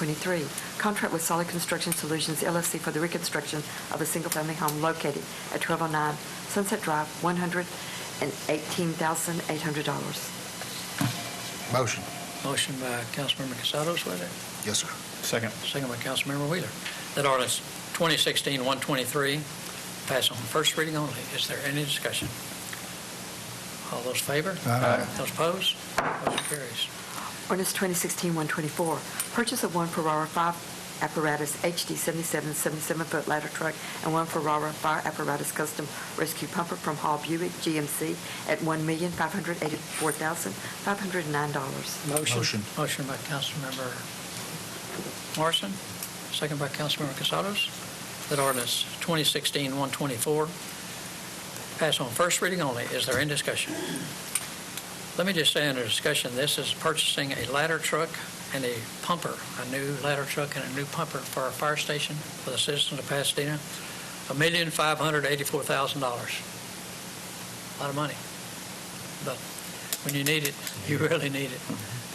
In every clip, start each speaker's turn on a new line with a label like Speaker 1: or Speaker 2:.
Speaker 1: 23, contract with Solid Construction Solutions LLC for the reconstruction of a single-family home located at 1209 Sunset Drive, $118,800.
Speaker 2: Motion.
Speaker 3: Motion by Councilmember Casado, is with it?
Speaker 2: Yes, sir.
Speaker 4: Second.
Speaker 3: Second by Councilmember Wheeler. That ordinance 2016-123 pass on first reading only. Is there any discussion? All those in favor?
Speaker 2: Aye.
Speaker 3: Those opposed? Motion carries.
Speaker 1: Ordinance 2016-124, purchase of one Ferrara fire apparatus HD 77 77-foot ladder truck and one Ferrara fire apparatus custom rescue pumper from Hall Buick GMC at $1,584,509.
Speaker 2: Motion.
Speaker 3: Motion by Councilmember Morrison, second by Councilmember Casados, that ordinance 2016-124 pass on first reading only. Is there any discussion? Let me just say under discussion, this is purchasing a ladder truck and a pumper, a new ladder truck and a new pumper for our fire station for the citizens of Pasadena, $1,584,000. A lot of money. But when you need it, you really need it.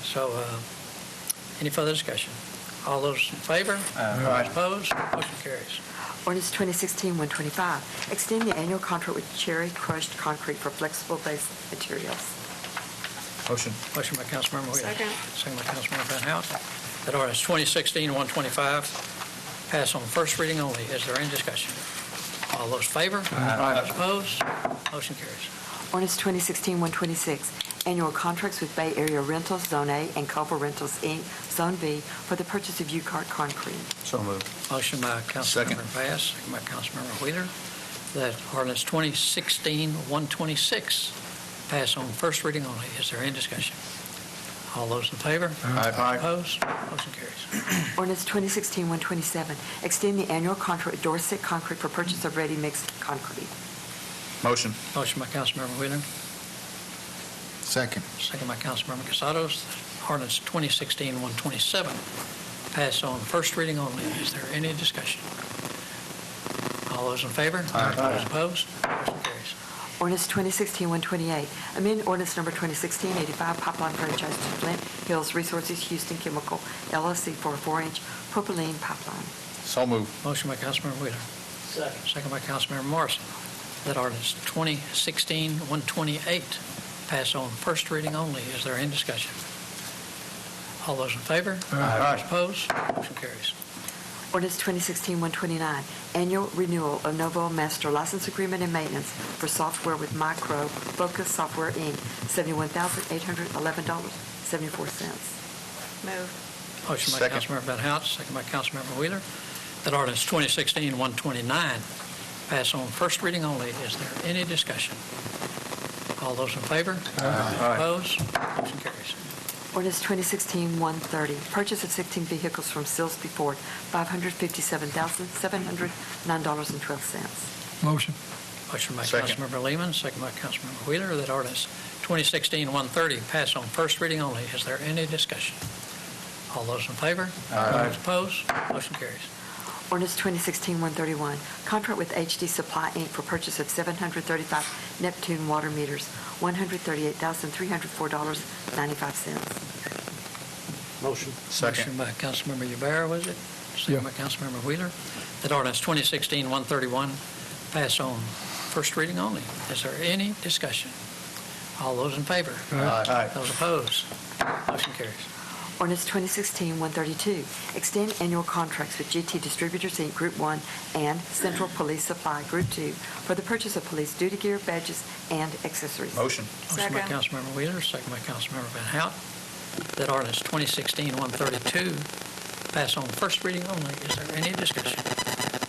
Speaker 3: So, uh, any further discussion? All those in favor?
Speaker 2: Aye.
Speaker 3: Opposed? Motion carries.
Speaker 1: Ordinance 2016-125, extend the annual contract with Cherry Crushed Concrete for flexible base materials.
Speaker 4: Motion.
Speaker 3: Motion by Councilmember Wheeler.
Speaker 1: Second.
Speaker 3: Second by Councilmember Van Houten. That ordinance 2016-125 pass on first reading only. Is there any discussion? All those in favor?
Speaker 4: Aye.
Speaker 3: Opposed? Motion carries.
Speaker 1: Ordinance 2016-126, annual contracts with Bay Area Rentals, Zone A, and Culver Rentals, Inc., Zone B, for the purchase of U-Cart concrete.
Speaker 4: So moved.
Speaker 3: Motion by
Speaker 4: Second.
Speaker 3: Councilmember Bass, second by Councilmember Wheeler, that ordinance 2016-126 pass on first reading only. Is there any discussion? All those in favor?
Speaker 4: Aye. Aye.
Speaker 3: Opposed? Motion carries.
Speaker 1: Ordinance 2016-127, extend the annual contract with Dorset Concrete for purchase of ready-mixed concrete.
Speaker 4: Motion.
Speaker 3: Motion by Councilmember Wheeler,
Speaker 2: Second.
Speaker 3: second by Councilmember Casados, ordinance 2016-127 pass on first reading only. Is there any discussion? All those in favor?
Speaker 4: Aye.
Speaker 3: Those opposed? Motion carries.
Speaker 1: Ordinance 2016-128, amend ordinance number 2016-85 pipeline franchise to Flint Hills Resources Houston Chemical LLC for a four-inch propylene pipeline.
Speaker 4: So moved.
Speaker 3: Motion by Councilmember Wheeler. Second. Second by Councilmember Morrison. That ordinance 2016-128 pass on first reading only. Is there any discussion? All those in favor?
Speaker 4: Aye.
Speaker 3: Those opposed? Motion carries.
Speaker 1: Ordinance 2016-129, annual renewal of Novo Master License Agreement and Maintenance for software with Micro Focus Software, Inc., $71,811.74.
Speaker 5: Move.
Speaker 3: Motion by
Speaker 4: Second.
Speaker 3: Councilmember Van Hout, second by Councilmember Wheeler. That ordinance 2016-129 pass on first reading only. Is there any discussion? All those in favor?
Speaker 4: Aye.
Speaker 3: Opposed? Motion carries.
Speaker 1: Ordinance 2016-130, purchase of 16 vehicles from Silsbee Ford, $557,709.12.
Speaker 3: Motion. Motion by
Speaker 4: Second.
Speaker 3: Councilmember Lehman, second by Councilmember Wheeler, that ordinance 2016-130 pass on first reading only. Is there any discussion? All those in favor?
Speaker 4: Aye.
Speaker 3: Those opposed? Motion carries.
Speaker 1: Ordinance 2016-131, contract with HD Supply, Inc. for purchase of 735 Neptune water meters, $138,304.95.
Speaker 4: Motion.
Speaker 3: Motion
Speaker 4: Second.
Speaker 3: by Councilmember Yubara, was it? Second by Councilmember Wheeler, that ordinance 2016-131 pass on first reading only. Is there any discussion? All those in favor?
Speaker 4: Aye. Aye.
Speaker 3: Those opposed? Motion carries.
Speaker 1: Ordinance 2016-132, extend annual contracts with GT Distributors, Inc., Group 1, and Central Police Supply, Group 2, for the purchase of police duty gear, badges, and accessories.
Speaker 4: Motion.
Speaker 3: Motion by
Speaker 5: Second.
Speaker 3: Councilmember Wheeler, second by Councilmember Van Hout, that ordinance 2016-132 pass on first reading only. Is there any discussion?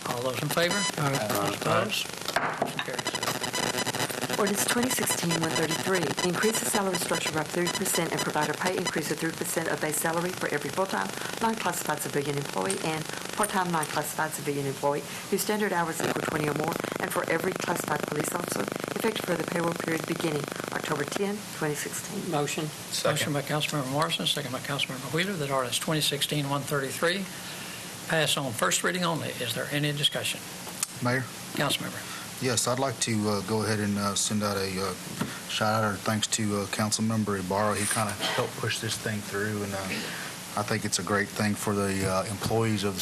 Speaker 3: All those in favor? Those opposed? Motion carries.
Speaker 1: Ordinance 2016-133, increase the salary structure by 3% and provide a pay increase of 3% of base salary for every full-time, non-classified civilian employee and part-time, non-classified civilian employee whose standard hours equal 20 or more, and for every classified police officer, effective for the payroll period beginning October 10, 2016.
Speaker 6: Motion.
Speaker 3: Motion by Councilmember Morrison, second by Councilmember Wheeler, that ordinance 2016-133 pass on first reading only. Is there any discussion?
Speaker 2: Mayor?
Speaker 3: Councilmember.
Speaker 2: Yes, I'd like to uh, go ahead and uh, send out a uh, shout out or thanks to uh, Councilmember Ibarra. He kind of helped push this thing through, and uh, I think it's a great thing for the uh, employees of the